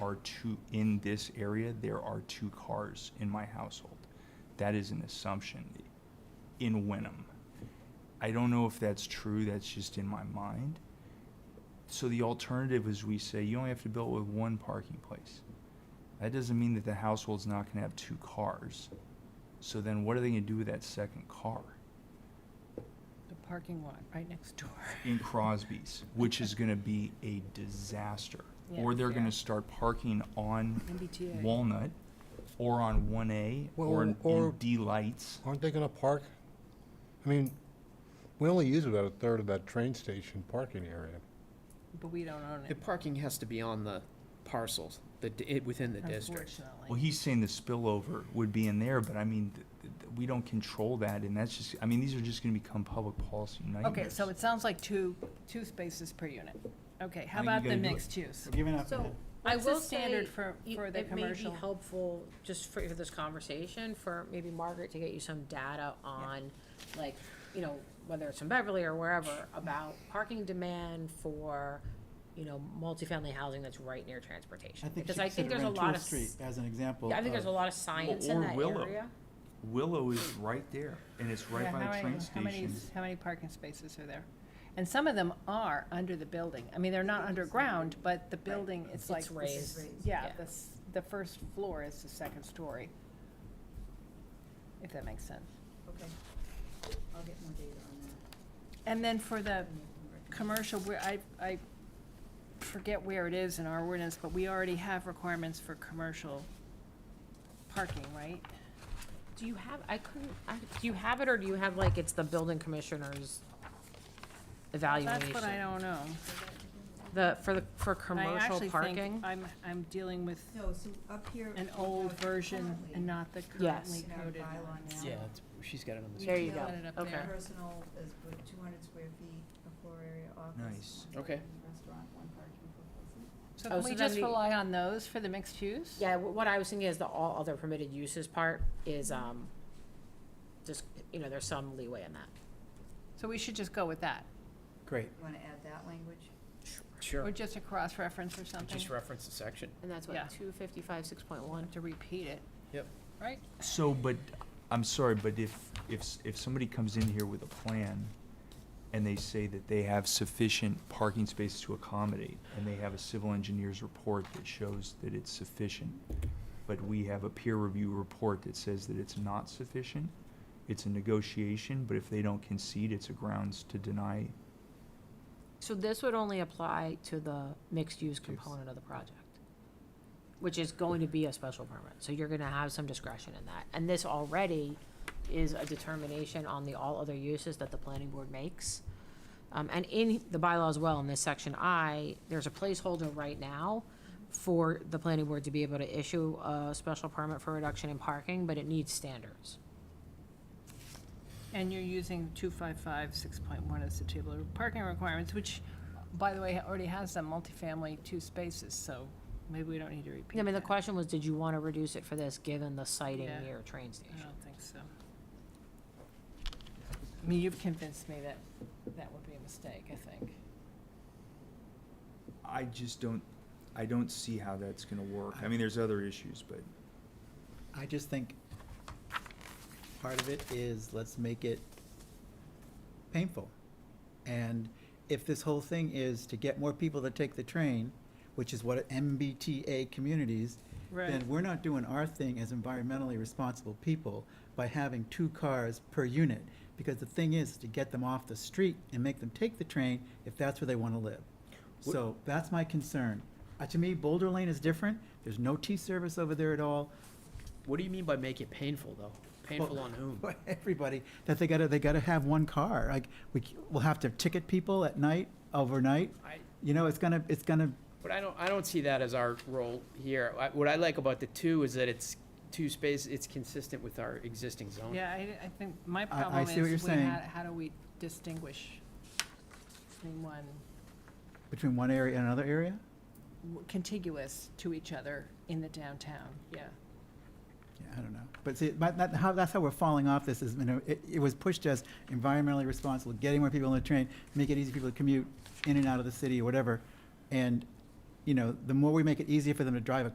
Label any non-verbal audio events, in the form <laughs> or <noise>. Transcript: are two, in this area, there are two cars in my household. That is an assumption in Wenham. I don't know if that's true, that's just in my mind. So the alternative is we say you only have to build with one parking place. That doesn't mean that the household's not gonna have two cars. So then what are they gonna do with that second car The parking lot right next door. in Crosby's, which is gonna be a disaster? Or <laughs> Yeah, they're yeah. gonna start parking on MBTA. Walnut or on one A or Well, in- or- in D lights. Aren't they gonna park? I mean, we only use about a third of that train station parking area. But we don't own The it, parking has to be on the parcels, the, di- it, within the district. Well, unfortunately. he's saying the spillover would be in there, but I mean, th- th- th- we don't control that, and that's just, I mean, these are just gonna become public policy nightmares. Okay, so it sounds like two, two spaces per unit. Okay, how I think you about the gotta do it. mixed use? We're giving up on So, it. I let's will just standard say for- you- for the It may commercial. be helpful, just for, for this conversation, for maybe Margaret to get you some data on, like, you know, whether it's from Beverly or wherever, about parking demand for, you know, multifamily housing that's right near I transportation. think Because she I said think there's a lot Rantoul of, s- Street as an example. yeah, I think there's a of- lot of science in or that Willow. area. Willow is right there, and it's right Yeah, by how the many- train how many station. s- How many parking spaces are there? And some of them are under the building. I mean, they're not underground, but the building, it's It's like. the s- raised, Yeah, yeah. the, s- the first floor is the second story. If that makes sense. Okay, I'll get more data on that. And then for the and we can recommend. commercial, where I, I forget where it is in our ordinance, but we already have requirements for commercial parking, right? Do you have, I couldn't, I, do you have it, or do you have, like, it's the building commissioner's evaluation? That's what I don't know. The, for the, for I commercial actually parking? think I'm, I'm dealing with No, so up here. an we old have version currently and not the Yes. currently in our coded bylaw one. now, Yeah, it's- she's got it on the. There you Yeah. go, Put it up okay. there. Personal is with two hundred square feet, a floor area Nice. office. one Okay. parking Restaurant, one parking for business. So Oh, can so we then just we- rely on those for the mixed use? Yeah, wh- what I was thinking is the all other permitted uses part is, um, just, you know, there's some leeway in that. So we should just go with that, Great, You wanna add that language? sure. or just a cross-reference or something, Just reference the section. And that's Yeah. what, two fifty-five, six point one? to repeat it, Yep. right? So, but, I'm sorry, but if, if, s- if somebody comes in here with a plan, and they say that they have sufficient parking spaces to accommodate, and they have a civil engineer's report that shows that it's sufficient, but we have a peer review report that says that it's not sufficient, it's a negotiation, but if they don't concede, it's a grounds to deny So this would only apply to the mixed-use component of the project, which is going to be a special permit, so you're gonna have some discretion in that. And this already is a determination on the all other uses that the planning board makes. Um, and in the bylaw as well, in this section I, there's a placeholder right now for the planning board to be able to issue a special permit for reduction in parking, but it needs standards. And you're using two five five, six point one as the table of parking requirements, which, by the way, ha- already has some multifamily two spaces, so maybe we don't need to repeat I mean, the that. question was, did you wanna reduce it for this, given the sighting Yeah. near a train I station? don't think so. I mean, you've convinced me that that would be a mistake, I think. I just don't, I don't see how that's gonna work. I mean, there's other issues, but I just think part of it is let's make it painful. And if this whole thing is to get more people to take the train, which is what MBTA communities, then we're not doing our thing as environmentally responsible people by having two cars per unit. Because the thing is to get them off the street and make them take the train if that's where they want to live. So that's my concern. Uh, to me, Boulder Lane is different. There's no T service over there at all. What do you mean by make it painful, though? Painful on whom? for <laughs> everybody that they gotta they gotta have one car. Like we c- we'll have to ticket people at night overnight. I, You know, it's gonna it's gonna but I don't, I don't see that as our role here. I- What I like about the two is that it's two space, it's consistent with our existing zone. Yeah, I, I think my I problem see what is, we, you're saying. how, how do we distinguish between one between one area and another area. w- contiguous to each other in the downtown, yeah. Yeah, I don't know. But see, but that, how, that's how we're falling off this is, you know, it, it was pushed as environmentally responsible, getting more people on the train, make it easy for people to commute in and out of the city or whatever. And you know, the more we make it easier for them to drive a